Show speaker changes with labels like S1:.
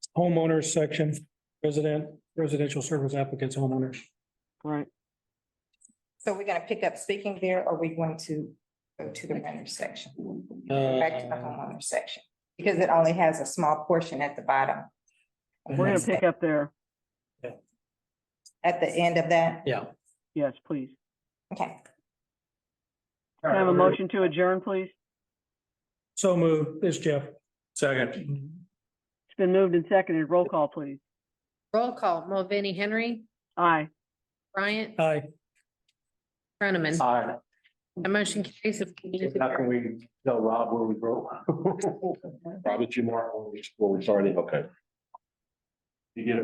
S1: homeowners section, resident, residential service applicants, homeowners.
S2: Right.
S3: So we're gonna pick up speaking there, or we going to go to the renter section, back to the
S1: Uh,
S3: homeowner section? Because it only has a small portion at the bottom.
S2: We're gonna pick up there.
S3: At the end of that,
S1: Yeah.
S2: Yes, please.
S3: okay,
S2: Can I have a motion to adjourn, please?
S1: So moved, this Jeff.
S4: Second.
S2: It's been moved and seconded. Roll call, please.
S5: Roll call, Mulvaney Henry,
S2: Aye.
S5: Bryant,
S1: Aye.
S5: Brenneman.
S4: Aye.
S5: The motion carries. The meeting is
S4: How
S5: adjourned.
S4: can we tell Rob where we broke? Rob, it's you mark, where we started, okay. You get it?